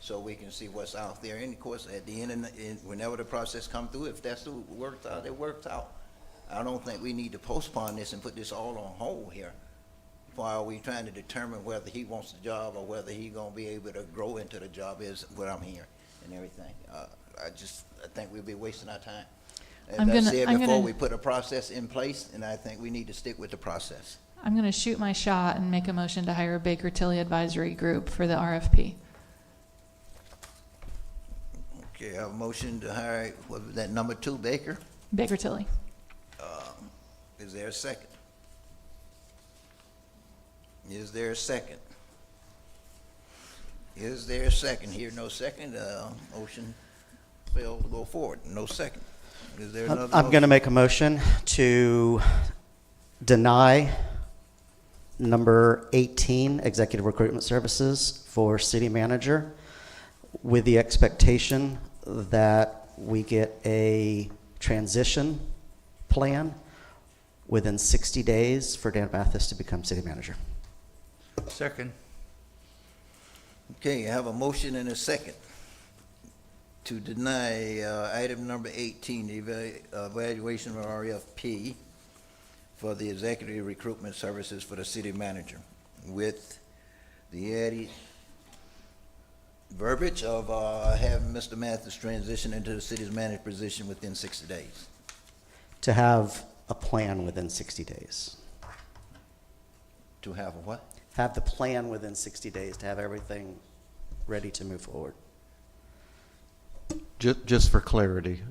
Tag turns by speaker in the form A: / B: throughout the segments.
A: so we can see what's out there. And of course, at the end, and whenever the process come through, if that's who worked out, it worked out. I don't think we need to postpone this and put this all on hold here. Why are we trying to determine whether he wants the job or whether he gonna be able to grow into the job is what I'm hearing and everything. Uh, I just, I think we'll be wasting our time.
B: I'm
A: As I
B: gonna-
A: said
B: I'm
A: before,
B: gonna-
A: we put a process in place, and I think we need to stick with the process.
B: I'm going to shoot my shot and make a motion to hire Baker Tilly Advisory Group for the RFP.
A: Okay, I have a motion to hire, what was that, number two Baker?
B: Baker Tilly.
A: Is there a second? Is there a second? Is there a second? Here, no second, uh, motion failed to go forward, no second. Is there another?
C: I'm going to make a motion to deny number 18, Executive Recruitment Services for City Manager, with the expectation that we get a transition plan within 60 days for Dan Mathis to become City Manager.
D: Second.
A: motion? Okay, I have a motion and a second to deny, uh, item number eighteen, the eva- uh, evaluation of RFP for the executive recruitment services for the city manager with the added verbiage of uh, having Mr. Mathis transition into the city's managed position within 60 days.
C: To have a plan within 60 days.
A: To have a what?
C: Have the plan within 60 days to have everything ready to move forward.
E: Just, just for clarity,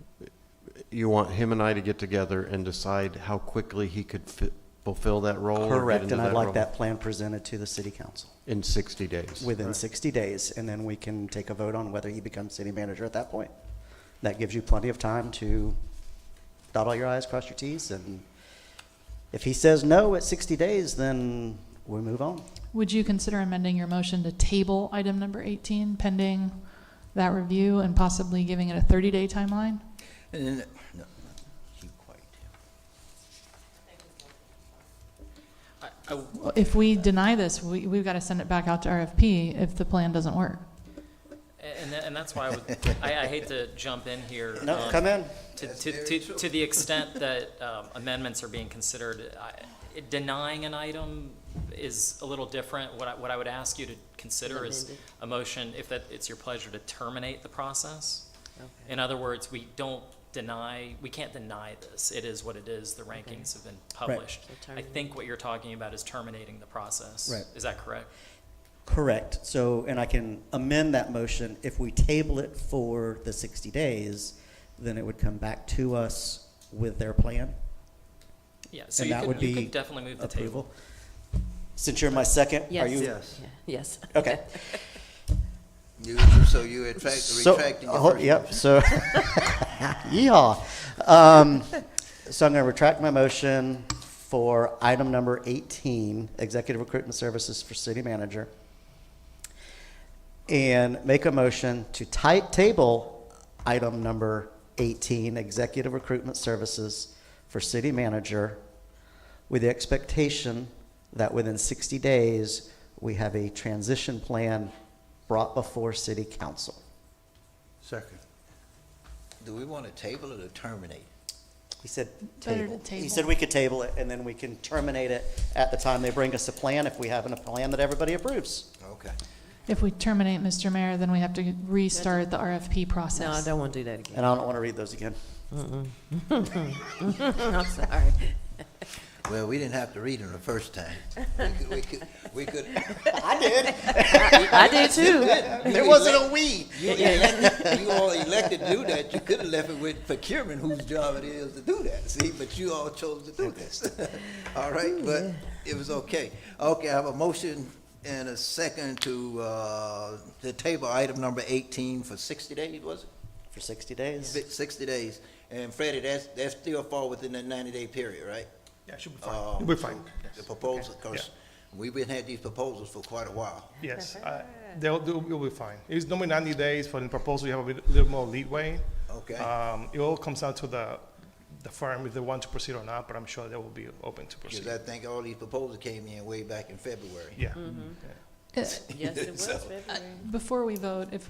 E: you want him and I to get together and decide how quickly he could fi- fulfill that role? or get
C: Correct,
E: into
C: and I'd
E: role
C: like that plan presented to the city council
E: In 60 days?
C: within 60 days, and then we can take a vote on whether he becomes city manager at that point. That gives you plenty of time to dot all your i's, cross your t's, and if he says no at 60 days, then we move on.
B: Would you consider amending your motion to table item number 18 pending that review and possibly giving it a 30-day timeline?
A: And then- no, no, keep quiet.
B: Well, If we deny this, we, we've got to send it back out to RFP if the plan doesn't work.
F: And, tha- and that's why I would, I, I hate to jump in here.
C: No,
F: um,
C: come in.
F: To, to, to, to the extent that um, amendments are being considered, I- denying an item is a little different. What I, what I would ask you to consider is a motion, if that, it's your pleasure, to terminate the process. In other words, we don't deny, we can't deny this. It is what it is. The rankings have been published. I think what you're talking about is terminating the process.
C: Right.
F: Is that correct?
C: Correct, so, and I can amend that motion, if we table it for the 60 days, then it would come back to us with their plan.
F: Yeah, so
C: And
F: you
C: that would
F: could, you
C: be
F: could definitely move the table.
C: approval. Since you're my second, are
G: Yes.
C: you?
D: Yes.
G: Yes.
C: Okay.
A: You- So uh, you're retract-
C: So-
A: retracting your
C: oh,
A: first
C: Yep,
A: motion.
C: so, yeehaw. Um, So I'm going to retract my motion for item number 18, Executive Recruitment Services for City Manager, and make a motion to ti- table item number 18, Executive Recruitment Services for City Manager, with the expectation that within 60 days, we have a transition plan brought before City Council.
D: Second.
A: Do we want to table it or terminate?
C: He said
B: Better to
C: table. He
B: table.
C: said we could table it, and then we can terminate it at the time they bring us a plan, if we have a plan that everybody approves.
A: Okay.
B: If we terminate, Mr. Mayor, then we have to restart the RFP
G: No, I
B: process.
G: don't want to do that again.
C: And I don't want to read those again.
G: I'm sorry.
A: Well, we didn't have to read them the first time. We could- We could, we could,
C: I did.
G: I did too.
C: There wasn't a we.
A: you elected, you all elected to do that. You could have left it with procurement whose job it is to do that, see, but you all chose to do this. All right, but it was okay. Okay, I have a motion and a second to, uh, to table item number eighteen for sixty days, was
C: For 60 days.
A: it? Sixty days. And Freddie, that's, that's still fall within that ninety-day period, right?
D: Yeah, should be
A: Oh.
D: fine. We're fine.
A: The proposal, because we've been had these proposals for quite a while.
D: Yes, I- they'll, they'll, it'll be fine. It's normally ninety days for the proposal, you have a bit- little more leadway.
A: Okay.
D: Um, it all comes down to the, the firm if they want to proceed or not, but I'm sure they will be open to
A: Because
D: proceed.
A: I think all these proposals came in way back in February.
D: Yeah.
G: Yes, it was
A: So-
G: February.
B: Uh, Before we vote, if we